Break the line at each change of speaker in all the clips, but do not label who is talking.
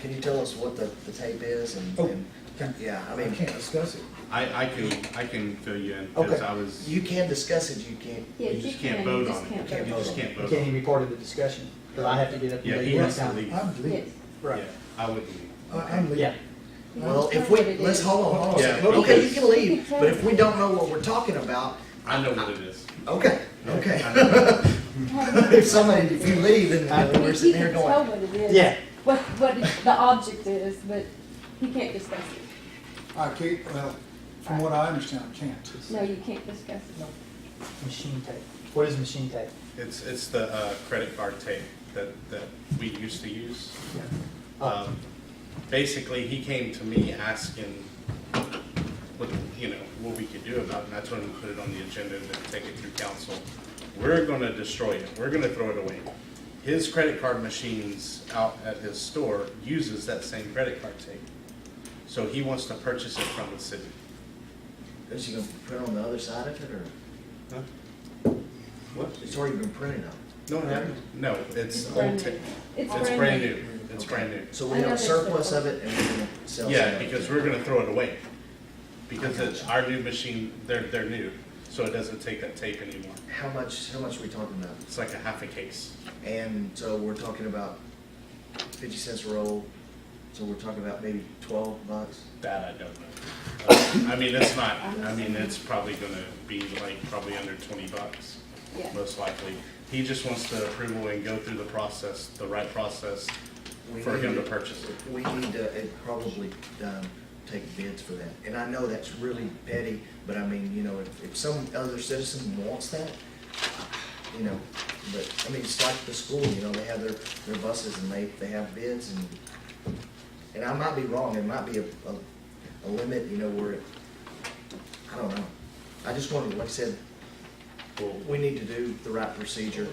Can you tell us what the, the tape is and,
Oh,
and-
can-
yeah, I
I
mean,
can't discuss it.
I, I can, I can fill you in, because I
okay,
was,
you
you
can discuss it, you can't,
Yeah,
just can't vote
you
on it,
just
you
can't
can't- you
vote
just
on it.
can't
You
vote
can't
on
even
it.
be part of the discussion, because I have to get up. and
Yeah,
leave
he
one
has to
time.
leave.
I'm
Yes.
leaving.
Yeah,
Right,
I would leave.
I- I'm
yeah.
leaving.
well, if
That's what
we,
it
let's,
is.
hold on, hold on a
Yeah,
second. Okay, you
because-
can leave, but if we don't know what we're talking about,
I know what it is.
okay,
I
okay.
know what it is.
If somebody, if you leave, then
I
we're
mean, he
sitting here
can tell
going,
what it is.
Yeah.
What, what the object is, but he can't discuss it.
I can't, well, from what I understand, I can't.
No, you can't discuss it.
Machine tape. What is machine tape?
It's, it's the uh, credit card tape that, that we used to use.
Oh,
Um, Basically, he came to me asking what, you know, what we could do about it, and that's when we put it on the agenda to take it through council. We're gonna destroy it, we're gonna throw it away. His credit card machines out at his store uses that same credit card tape. So he wants to purchase it from the city.
is she gonna print on the other side of it, or,
What?
it's already been printed on?
No, it hasn't. no, it's old
brand
tape.
new.
It's brand new, it's brand new.
So
I
we
know
have
there's
surplus
surplus.
of it and we're gonna sell some
Yeah,
of it.
because we're gonna throw it away. Because
I
it's our new machine, they're, they're new, so it doesn't take that tape anymore.
How much, how much are we talking about?
It's like a half a case.
And so we're talking about fifty cents a roll, so we're talking about maybe twelve bucks.
That I don't know. Uh, I mean, it's not, I mean, it's probably gonna be like, probably under twenty bucks,
Yeah.
most likely. He just wants the approval and go through the process, the right process
We
for him to
need-
purchase it.
We need to, uh, probably, um, take bids for that. And I know that's really petty, but I mean, you know, if, if some other citizen wants that, you know, but, I mean, it's like the school, you know, they have their, their buses and they, they have bids and, and I might be wrong, there might be a, a, a limit, you know, where, it- I don't know. I just wanted, like I said,
Well,
we need to do the right procedure.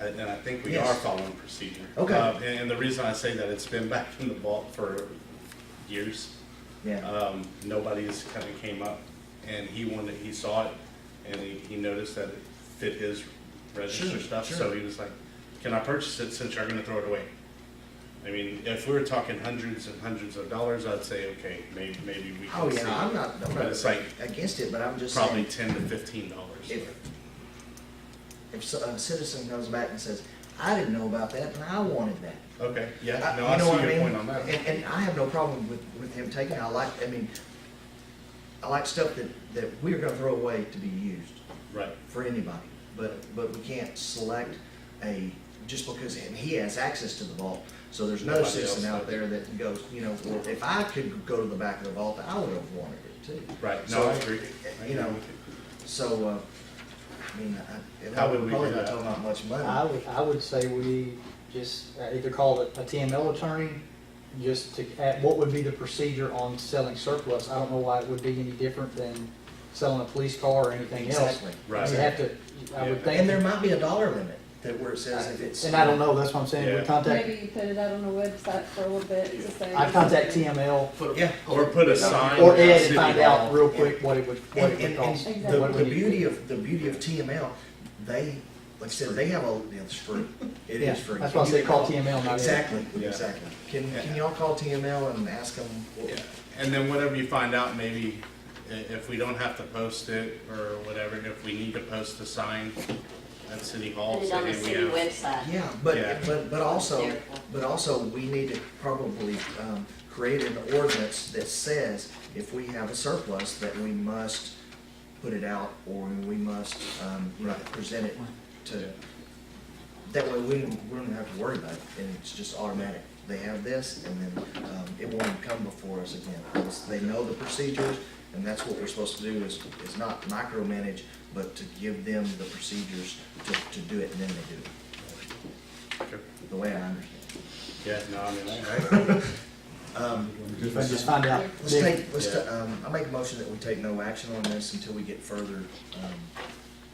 Uh, And and I think we
Yes.
are following procedure.
Okay.
Uh, And and the reason I say that, it's been back in the vault for years.
Yeah,
Um, nobody's kind of came up, and he wanted, he saw it, and he, he noticed that it fit his register
Sure,
stuff, so
sure.
he was like, can I purchase it since you're gonna throw it away? I mean, if we were talking hundreds and hundreds of dollars, I'd say, okay, may, maybe we
oh
can see.
yeah, I'm not, I'm
But it's like,
not against it, but I'm just
probably
saying,
ten to fifteen dollars.
if, if so- a citizen comes back and says, I didn't know about that and I wanted that.
Okay, yeah,
I-
no,
you
I
know what
see your
mean?
point on that.
And, and I have no problem with, with him taking, it. I like, I mean, I like stuff that, that we're gonna throw away to be used
Right,
for anybody. But, but we can't select a, just because, and he has access to the vault. So there's no
Nobody
citizen
else
out
does.
there that goes, you know, well, if I could go to the back of the vault, I would have wanted it too.
right, no,
So,
I agree. I
You
agree
know,
with
so, uh, I mean, I, and I
How would
would
we
probably
do
not
that?
talking about much money.
I would, I would say we just uh, either call it a TML attorney, just to, at what would be the procedure on selling surplus? I don't know why it would be any different than selling a police car or anything else.
Exactly.
Right.
You have to, I would
Yeah.
think.
And there might be a dollar limit that where it says if it's.
And I don't know, that's what I'm saying,
Yeah.
we contact,
Maybe you put it out on the website for a little bit to say.
I contact TML
Yeah.
Or put a sign.
or Ed and
City
find
Hall.
out real quick what it would, what
And,
it would
and,
cost.
and
Exactly.
the,
what it
the
would-
beauty of, the beauty of TML, they, like I said, they have a, it's free. It
Yeah,
is free.
that's why I
You
say
can
call TML, not Ed.
Exactly,
Yeah.
exactly. Can, can y'all call TML and ask them? what-
Yeah, and then whatever you find out, maybe i- if we don't have to post it or whatever, if we need to post a sign at City Hall.
Put it on the
say, hey,
city
we have-
website.
Yeah, but,
Yeah.
but, but also,
Careful.
but also, we need to probably, um, create an ordinance that says if we have a surplus, that we must put it out, or we must, um, you know, present it to, that way we don't, we don't have to worry about it, and it's just automatic. They have this, and then, um, it won't even come before us again, because they know the procedures, and that's what we're supposed to do, is, is not micromanage, but to give them the procedures to, to do it, and then they do it
Sure.
the way I understand.
Yeah, no, I mean, I-
If I just find out.
Let's
then-
take, let's, ta-
Yeah.
um, I make a motion that we take no action on this until we get further, um,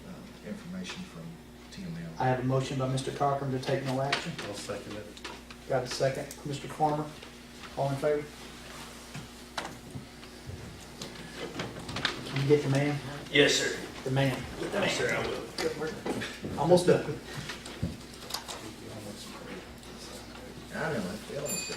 uh, information from
I
TML.
have a motion by Mr. Cochran to take no action.
I'll second it.
Got a second, Mr. Farmer, all in favor? Can you get the man?
Yes, sir.
The man,
Yes, sir, I will.
almost done.
I know, I feel it.